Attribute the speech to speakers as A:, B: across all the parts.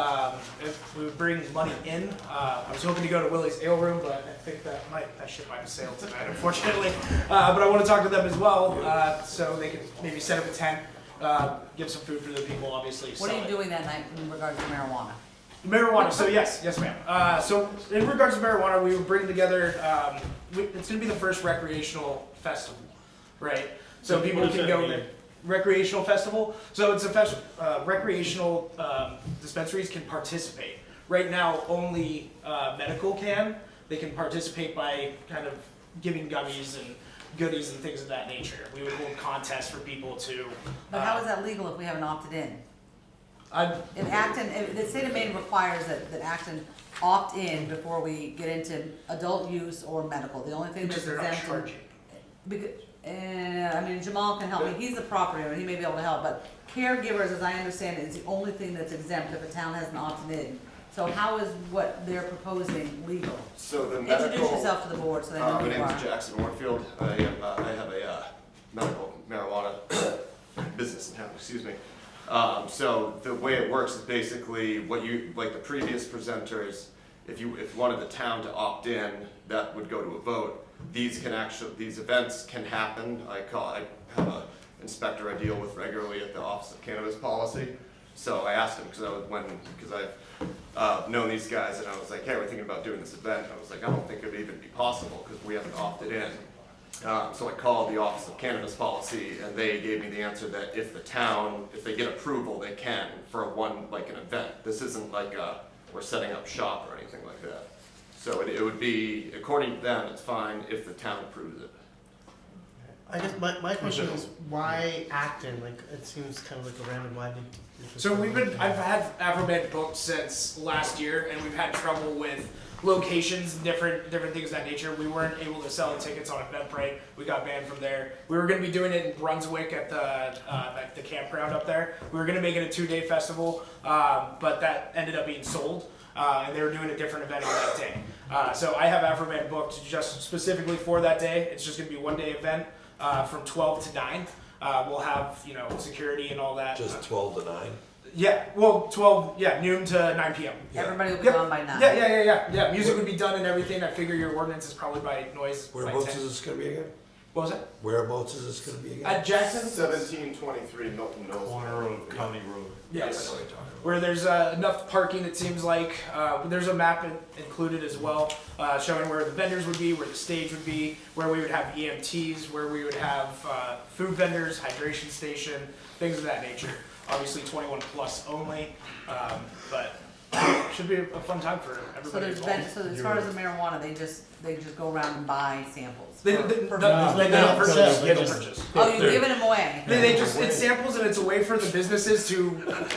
A: Um, who brings money in. Uh, I was hoping to go to Willie's Ale Room, but I think that might that ship might have sailed tonight, unfortunately. Uh, but I want to talk to them as well, uh, so they can maybe set up a tent, uh, give some food for the people, obviously.
B: What
A: sell
B: are
A: it.
B: you doing that night in regards to marijuana?
A: Marijuana. So yes, yes, ma'am. Uh, so in regards to marijuana, we would bring together. Um, we, it's going to be the first recreational festival, right? So people
C: What does
A: can
C: that
A: go
C: mean?
A: recreational festival. So it's a fest, uh, recreational um, dispensaries can participate. Right now, only uh, medical can. They can participate by kind of giving gummies and goodies and things of that nature. We would hold contests for people to. uh,
B: But how is that legal if we haven't opted in?
A: I,
B: If Acton, if the state of Maine requires that, that Acton opt in before we get into adult use or medical, the only thing that's
A: because they're not
B: exempt.
A: charging.
B: Because, uh, I mean, Jamal can help me, he's the property owner, he may be able to help, but caregivers, as I understand it, is the only thing that's exempt if a town hasn't opted in. So how is what they're proposing legal?
D: So the medical.
B: Introduce yourself to the board so they know
D: Uh,
B: who
D: my
B: you
D: name is
B: are.
D: Jackson Orfield. I am, uh, I have a, uh, medical marijuana business in town, excuse me. Um, so the way it works is basically what you, like the previous presenters, if you, if one of the town to opt in, that would go to a vote. These can actually, these events can happen. I call, I have a inspector I deal with regularly at the Office of Cannabis Policy. So I asked him, because I was, when, because I've uh, known these guys, and I was like, hey, we're thinking about doing this event. I was like, I don't think it'd even be possible, because we haven't opted in. Uh, So I called the Office of Cannabis Policy, and they gave me the answer that if the town, if they get approval, they can for a one, like an event. This isn't like a, we're setting up shop or anything like that. So it it would be, according to them, it's fine if the town approves it.
C: I guess my, my question is why Acton? Like it seems kind of like a random. Why did? did this
A: So we've been,
C: happen?
A: I've had Afroman booked since last year, and we've had trouble with locations, different different things of that nature. We weren't able to sell tickets on Eventbrite. We got banned from there. We were going to be doing it in Brunswick at the uh, at the campground up there. We were going to make it a two day festival, um, but that ended up being sold. Uh, and they were doing a different event on that day. Uh, so I have Afroman booked just specifically for that day. It's just going to be one day event uh, from 12 to 9. Uh, we'll have you know security and all that.
E: Just twelve to nine.
A: Yeah, well, twelve. Yeah, noon to nine p.m.
E: Yeah.
B: Everybody will be
A: Yep.
B: gone by nine.
A: Yeah, yeah, yeah, yeah, yeah. Music would be done and everything. I figure your ordinance is probably by noise. by
E: Whereabouts
A: 10.
E: is this gonna be again?
A: What was that?
E: Whereabouts is this gonna be again?
A: At Jackson.
D: Seventeen twenty-three Milton
F: Corner of County Road.
E: That's
A: Yes.
E: what I'm talking about.
A: Where there's uh, enough parking, it seems like. Uh, there's a map in- included as well, uh, showing where the vendors would be, where the stage would be, where we would have EMTs, where we would have uh, food vendors, hydration station, things of that nature. Obviously, 21 plus only, um, but should be a fun time for everybody.
B: So there's,
A: involved.
B: been- so as far as the marijuana, they just, they just go around and buy samples?
A: They, they, they, no, they don't purchase. They don't purchase.
B: Oh, you're giving them away?
A: They, they just it's samples and it's a way for the businesses to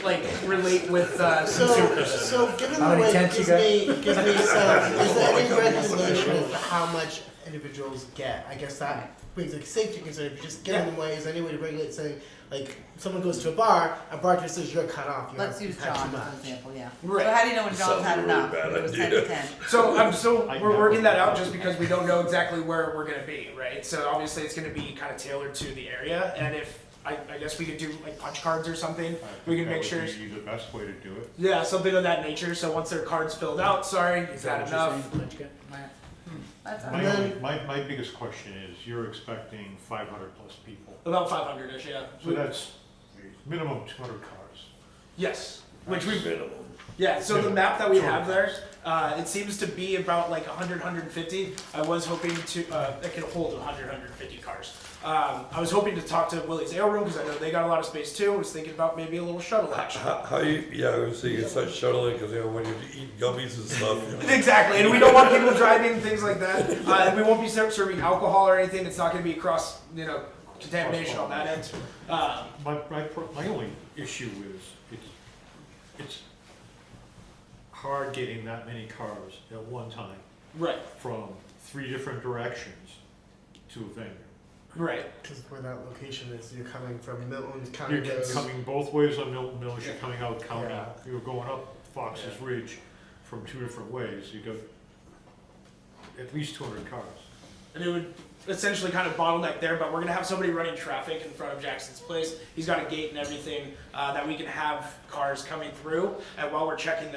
A: like relate with uh,
C: So,
A: consumers.
C: so given
G: How
C: the
G: many
C: way it
G: tents you
C: gives me, gives me some, is there any regulation of how much individuals get? I guess that brings like safety concern, if you're just giving them away, is there any way to regulate saying, like, someone goes to a bar, a bartender says you're cut off, you have
B: Let's
C: you
B: use
C: had too
B: John
C: much.
B: as an example, yeah.
A: Right.
B: So how do you know when John's
E: Sounds
B: had
E: really
B: enough?
E: bad
B: It was ten to
E: idea.
B: ten.
A: So I'm so
F: I
A: we're
F: know.
A: working that out just because we don't know exactly where we're gonna be, right? So obviously it's gonna be kind of tailored to the area, and if I, I guess we could do like punch cards or something,
F: I think
A: we can
F: that
A: make
F: would
A: sure.
F: be The best way to do it.
A: Yeah, something of that nature. So once their card's filled out, sorry, you've had enough.
B: Right. That's all
F: My,
B: right.
F: only, my, my biggest question is, you're expecting five hundred plus people,
A: About 500ish, yeah.
F: so that's minimum two hundred cars.
A: yes, which we
E: Minimum.
A: Yeah, so the
F: Yeah.
A: map that we
F: Sure.
A: have there, uh, it seems to be about like 100, 150. I was hoping to, uh, that could hold 100, 150 cars. Um, I was hoping to talk to Willie's Ale Room because I know they got a lot of space too. I was thinking about maybe a little shuttle action.
E: How, how you, yeah, I was thinking, start shuttling, cause you know, when you eat gummies and stuff, you know.
A: Exactly, and we don't want people driving things like that. Uh, and we won't be ser- serving alcohol or anything. It's not going to be cross, you know, contamination on that end. Um,
F: My, my, pro- my only issue is, it's, it's hard getting that many cars at one time
A: right,
F: from three different directions to a venue.
A: right.
C: Cause where that location is, you're coming from Milton County
F: You're
C: Road.
F: coming both ways on Milton Mills, you're
A: Yeah.
F: coming out county,
C: Yeah.
F: you're going up Fox's Ridge from two different ways, you got at least two hundred cars.
A: and it would essentially kind of bottleneck there. But we're gonna have somebody running traffic in front of Jackson's place. He's got a gate and everything uh, that we can have cars coming through, and while we're checking them.